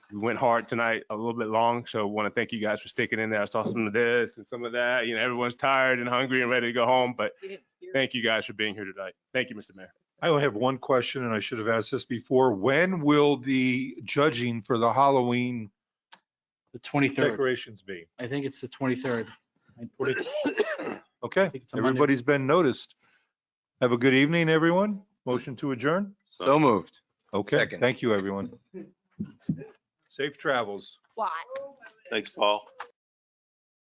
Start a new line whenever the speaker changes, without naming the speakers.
we went hard tonight, a little bit long. So want to thank you guys for sticking in there. I saw some of this and some of that. You know, everyone's tired and hungry and ready to go home, but
We didn't hear-
thank you guys for being here tonight. Thank you, Mr. Mayor.
I only have one question, and I should have asked this before. When will the judging for the Halloween
The 23rd.
decorations be?
I think it's the 23rd. I put it- I
Okay,
think it's a Monday.
everybody's been noticed. Have a good evening, everyone. Motion to adjourn?
So moved.
Okay,
Second.
thank you, everyone. Safe travels.
Why?
Thanks, Paul.